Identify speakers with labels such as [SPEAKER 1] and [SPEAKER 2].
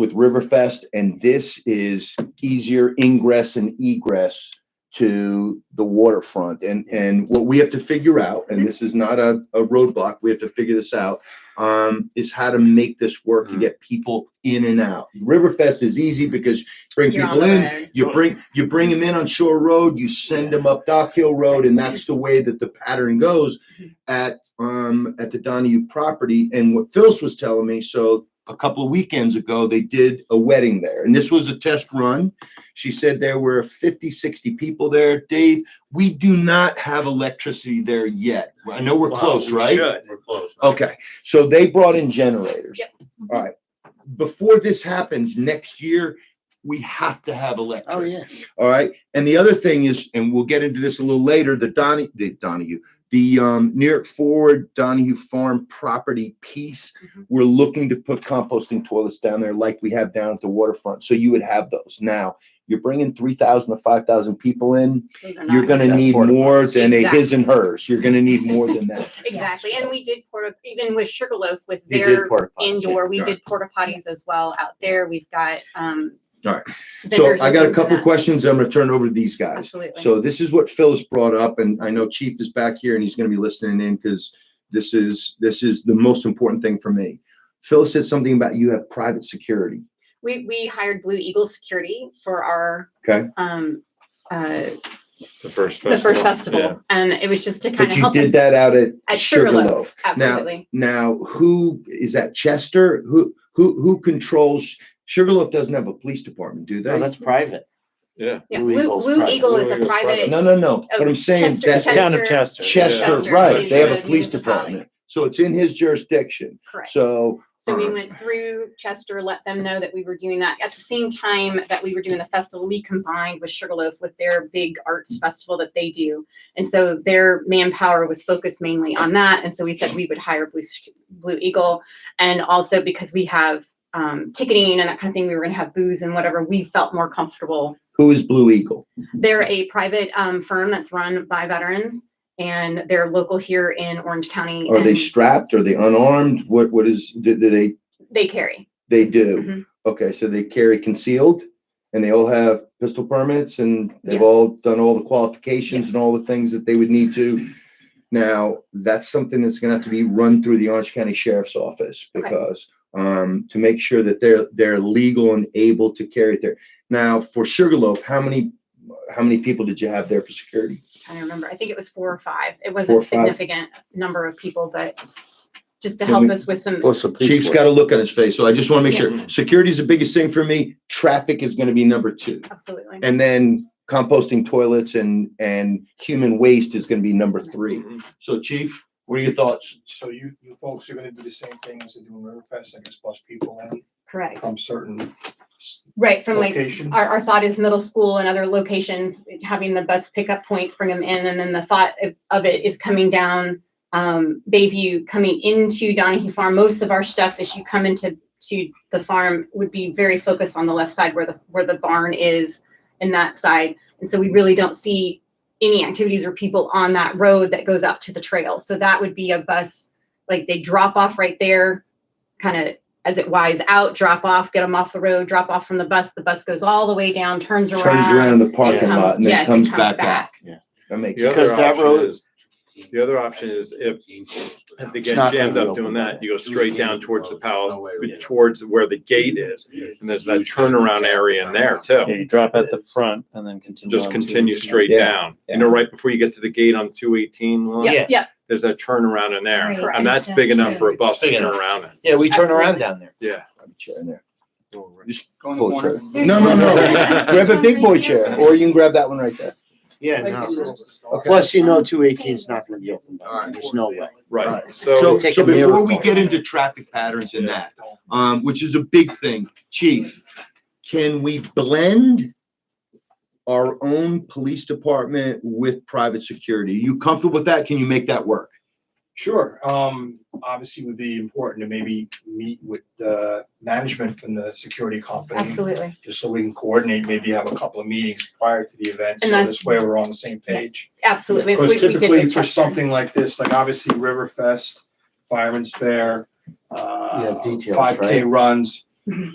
[SPEAKER 1] with Riverfest, and this is easier ingress and egress to the waterfront. And, and what we have to figure out, and this is not a, a roadblock, we have to figure this out, um, is how to make this work to
[SPEAKER 2] Mm.
[SPEAKER 3] Mhm.
[SPEAKER 1] get people in and out. Riverfest is easy because you bring
[SPEAKER 2] You're on
[SPEAKER 1] people
[SPEAKER 2] the
[SPEAKER 1] in,
[SPEAKER 2] road.
[SPEAKER 1] you bring, you bring them in on Shore Road, you send them up Dock Hill Road, and that's the way that the pattern goes at, um, at the Donahue property. And what Phils was telling me, so a couple of weekends ago, they did a wedding there, and this was a test run. She said there were 50, 60 people there. Dave, we do not have electricity there yet. I know we're
[SPEAKER 3] Wow,
[SPEAKER 1] close,
[SPEAKER 3] we
[SPEAKER 1] right?
[SPEAKER 3] should. We're close.
[SPEAKER 1] Okay, so they brought in generators.
[SPEAKER 2] Yep.
[SPEAKER 1] All right. Before this happens next year, we have to have electric.
[SPEAKER 3] Oh, yeah.
[SPEAKER 1] All right. And the other thing is, and we'll get into this a little later, the Donnie, the Donahue, the um, New York Forward Donahue Farm property piece.
[SPEAKER 2] Mhm.
[SPEAKER 1] We're looking to put composting toilets down there like we have down at the waterfront. So you would have those. Now, you're bringing 3,000 to 5,000 people in.
[SPEAKER 2] Those are
[SPEAKER 1] You're
[SPEAKER 2] not-
[SPEAKER 1] going to
[SPEAKER 4] That's
[SPEAKER 1] need
[SPEAKER 4] portable.
[SPEAKER 1] more than a his
[SPEAKER 2] Exactly.
[SPEAKER 1] and hers. You're going to need more than that.
[SPEAKER 2] Exactly, and we did porta, even with Sugarloaf with
[SPEAKER 4] They did
[SPEAKER 2] their
[SPEAKER 4] porta potties.
[SPEAKER 2] indoor, we
[SPEAKER 1] Alright.
[SPEAKER 2] did porta potties as well out there. We've got, um.
[SPEAKER 1] Alright. So
[SPEAKER 2] vendors
[SPEAKER 1] I got a
[SPEAKER 2] looking for
[SPEAKER 1] couple
[SPEAKER 2] that.
[SPEAKER 1] questions. um, I'm going to turn it over to these guys.
[SPEAKER 2] Absolutely.
[SPEAKER 1] So this is what Phil's brought up, and I know Chief is back here and he's gonna be listening in because this is, this is the most important thing for me. Phil said something about you have private security.
[SPEAKER 2] We, we hired Blue Eagle Security for our.
[SPEAKER 1] Okay.
[SPEAKER 2] Um, uh,
[SPEAKER 3] The first festival.
[SPEAKER 2] the first
[SPEAKER 3] Yeah.
[SPEAKER 2] festival, and it was just to kind
[SPEAKER 1] But
[SPEAKER 2] of
[SPEAKER 1] you
[SPEAKER 2] help us.
[SPEAKER 1] did that out at
[SPEAKER 2] At
[SPEAKER 1] Sugarloaf.
[SPEAKER 2] Sugarloaf,
[SPEAKER 1] Now-
[SPEAKER 2] absolutely.
[SPEAKER 1] Now, who, is that Chester? Who, who, who controls? Sugarloaf doesn't have a police department, do
[SPEAKER 4] No,
[SPEAKER 1] they?
[SPEAKER 4] that's private.
[SPEAKER 3] Yeah.
[SPEAKER 2] Yeah,
[SPEAKER 4] Blue
[SPEAKER 2] Blue,
[SPEAKER 4] Eagle's
[SPEAKER 2] Blue
[SPEAKER 4] private.
[SPEAKER 2] Eagle is
[SPEAKER 3] Blue
[SPEAKER 2] a
[SPEAKER 3] Eagle's private.
[SPEAKER 2] private,
[SPEAKER 1] No, no, no,
[SPEAKER 2] Oh,
[SPEAKER 1] but I'm saying
[SPEAKER 2] Chester-
[SPEAKER 1] that's
[SPEAKER 2] Chester-
[SPEAKER 4] Town of Chester.
[SPEAKER 1] Chester,
[SPEAKER 2] Chester
[SPEAKER 1] right, they have
[SPEAKER 2] is
[SPEAKER 1] a
[SPEAKER 2] a
[SPEAKER 1] police
[SPEAKER 2] municipality.
[SPEAKER 1] department. So it's in his jurisdiction.
[SPEAKER 2] correct.
[SPEAKER 1] So,
[SPEAKER 2] So we went through Chester, let them know that we were doing that. At the same time that we were doing the festival, we combined with Sugarloaf with their big arts festival that they do. And so their manpower was focused mainly on that. And so we said we would hire Blue, Sh- Blue Eagle. And also because we have um, ticketing and that kind of thing, we were going to have booze and whatever, we felt more comfortable
[SPEAKER 1] who is Blue Eagle?
[SPEAKER 2] They're a private um, firm that's run by veterans, and they're local here in Orange County.
[SPEAKER 1] Are they
[SPEAKER 2] and
[SPEAKER 1] strapped? Are they unarmed? What, what is, do do they,
[SPEAKER 2] they carry.
[SPEAKER 1] They do.
[SPEAKER 2] Mhm.
[SPEAKER 1] Okay, so they carry concealed and they all have pistol permits and they've
[SPEAKER 2] Yeah.
[SPEAKER 1] all done all the qualifications and
[SPEAKER 2] Yes.
[SPEAKER 1] all the things that they would need to. Now, that's something that's gonna have to be run through the Orange County Sheriff's Office
[SPEAKER 2] Okay.
[SPEAKER 1] because um, to make sure that they're, they're legal and able to carry it there. Now, for Sugarloaf, how many, how many people did you have there for security?
[SPEAKER 2] I don't remember. I think it was four or five. It
[SPEAKER 1] Four or
[SPEAKER 2] wasn't a
[SPEAKER 1] five.
[SPEAKER 2] significant number of people, but just to
[SPEAKER 1] Can
[SPEAKER 2] help
[SPEAKER 1] we-
[SPEAKER 2] us with some.
[SPEAKER 4] What's the police
[SPEAKER 1] Chief's
[SPEAKER 4] force?
[SPEAKER 1] got a look on his face, so I just wanna make
[SPEAKER 2] Yeah.
[SPEAKER 1] sure. Security's the biggest thing for me. Traffic is gonna be number two.
[SPEAKER 2] Absolutely.
[SPEAKER 1] And then composting toilets and, and human waste is gonna be number three.
[SPEAKER 3] Mhm.
[SPEAKER 1] So chief, what are your thoughts?
[SPEAKER 5] So you, you folks are gonna do the same thing as they do in Riverfest, I guess, bus people in
[SPEAKER 2] Correct.
[SPEAKER 5] from certain
[SPEAKER 2] Right. From like
[SPEAKER 5] locations?
[SPEAKER 2] our, our thought is middle school and other locations having the bus pickup points, bring them in. And then the thought of, of it is coming down um, Bayview, coming into Donahue Farm. Most of our stuff, as you come into to the farm, would be very focused on the left side where the where the barn is and that side. And so we really don't see any activities or people on that road that goes out to the trail. So that would be a bus like they drop off right there, kind of as it wides out, drop off, get them off the road, drop off from the bus. The bus goes all the way down, turns around,
[SPEAKER 1] Turns around in the
[SPEAKER 2] and
[SPEAKER 1] parking
[SPEAKER 2] comes-
[SPEAKER 1] lot and
[SPEAKER 2] yes,
[SPEAKER 1] then
[SPEAKER 2] and
[SPEAKER 1] comes back out. That makes,
[SPEAKER 3] The other
[SPEAKER 4] Because that
[SPEAKER 3] option
[SPEAKER 4] road-
[SPEAKER 3] is- The other option is if, if they
[SPEAKER 4] It's
[SPEAKER 3] get
[SPEAKER 4] not
[SPEAKER 3] jammed
[SPEAKER 4] gonna
[SPEAKER 3] up
[SPEAKER 4] be
[SPEAKER 3] doing
[SPEAKER 4] open
[SPEAKER 3] that,
[SPEAKER 4] back.
[SPEAKER 3] you go straight down towards the
[SPEAKER 6] No
[SPEAKER 3] pal,
[SPEAKER 6] way we-
[SPEAKER 3] towards where the gate is. And there's that turnaround area in there
[SPEAKER 4] Yeah,
[SPEAKER 3] too.
[SPEAKER 6] Okay.
[SPEAKER 4] you drop at the front and then continue.
[SPEAKER 3] Just
[SPEAKER 4] on to-
[SPEAKER 3] continue straight
[SPEAKER 1] Yeah.
[SPEAKER 3] down. You know, right before you get to the gate on two eighteen
[SPEAKER 2] Yep,
[SPEAKER 3] line,
[SPEAKER 4] Yeah.
[SPEAKER 2] yeah. yep.
[SPEAKER 3] there's that turnaround in there.
[SPEAKER 2] Right.
[SPEAKER 3] And that's big enough for a bus to turn around in.
[SPEAKER 4] Yeah, we turn around
[SPEAKER 2] Absolutely.
[SPEAKER 4] down there.
[SPEAKER 3] Yeah.
[SPEAKER 1] I'm sharing there.
[SPEAKER 5] Go in the
[SPEAKER 1] Pull
[SPEAKER 5] corner.
[SPEAKER 1] it through. No, no, no. Grab a big boy chair or you can grab that one right there.
[SPEAKER 4] Yeah,
[SPEAKER 2] Right.
[SPEAKER 4] no.
[SPEAKER 1] Okay.
[SPEAKER 4] Plus, you know, two eighteen's not gonna be open. down there. There's no way.
[SPEAKER 3] Right.
[SPEAKER 1] Alright.
[SPEAKER 3] So
[SPEAKER 1] So,
[SPEAKER 4] Take
[SPEAKER 1] so
[SPEAKER 4] a
[SPEAKER 1] before
[SPEAKER 4] miracle.
[SPEAKER 1] we get into traffic patterns and that, um, which is a big thing, chief, can we blend our own police department with private security? You comfortable with that? Can you make that work?
[SPEAKER 5] Sure, um, obviously would be important to maybe meet with, uh, management from the security company.
[SPEAKER 2] Absolutely.
[SPEAKER 5] Just so we can coordinate, maybe have a couple of meetings prior to the event, so
[SPEAKER 2] And that's-
[SPEAKER 5] this way we're on the same page.
[SPEAKER 2] Absolutely. That's
[SPEAKER 5] Because
[SPEAKER 2] what we did
[SPEAKER 5] typically
[SPEAKER 2] with
[SPEAKER 5] for
[SPEAKER 2] Chester.
[SPEAKER 5] something like this, like obviously Riverfest, Fireman's Fair,
[SPEAKER 4] Yeah, details,
[SPEAKER 5] five K runs,
[SPEAKER 2] Mhm.